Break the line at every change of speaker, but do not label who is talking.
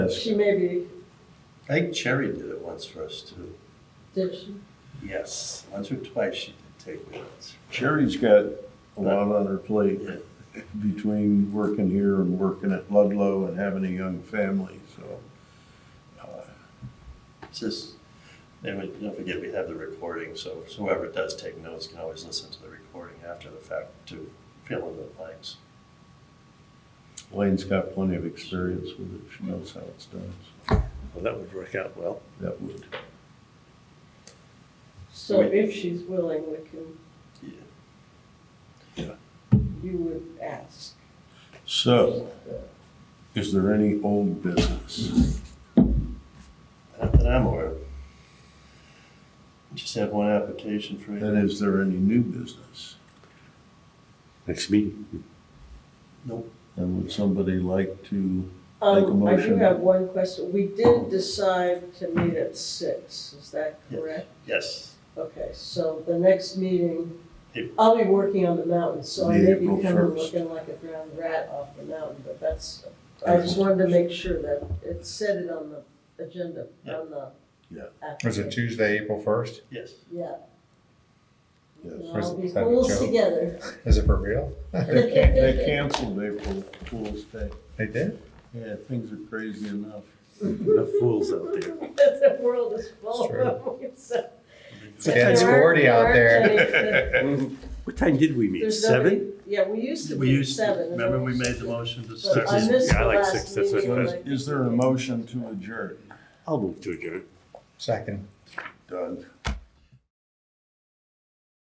does.
She may be,
I think Cherry did it once for us too.
did she?
Yes, once or twice she did take minutes.
Sherry's got a lot on her plate between working here and working at Ludlow and having a young family, so.
It's just, and we, don't forget, we have the recording, so whoever does take notes can always listen to the recording after the fact to fill in the blanks.
Elaine's got plenty of experience with it. She knows how it's done. so
Well, that would work out well.
That would,
So
Wait.
if she's willing, we can.
Yeah.
Yeah.
You would ask.
so, is there any old business?
Not that I'm aware of. Just have one application for
And
you.
is there any new business?
Next meeting.
Nope.
And would somebody like to, Make a
Um, I do
motion.
have one question. We did decide to meet at six, is that
Yes.
correct?
Yes,
Okay, so the next meeting,
April.
I'll be working on the mountain, so I may be
April
kind of
1st.
looking like a ground rat off the mountain, but that's, I just wanted to make sure that it said it on the agenda, on the.
Yeah.
Was it Tuesday, April first?
yes.
Yeah.
Yes.
We'll
Was
all
it-
be
is that a
fools
joke?
together.
Is it for real?
they can- they canceled April Fool's Day.
They did?
Yeah, things are crazy enough.
Enough fools out there.
The world is full of them. So-
It's getting sporty out
There
there.
aren't any-
What time did we meet?
there's
Seven?
nobody- Yeah, we used to
We
be
used,
seven.
to-
and
remember
then
we
we-
made the motion to
But
start?
I missed
Yeah, I
the
like
last
six, that's
meeting,
So
what it
like-
is- Is there a motion to adjourn?
I'll move to adjourn.
Second.
Done.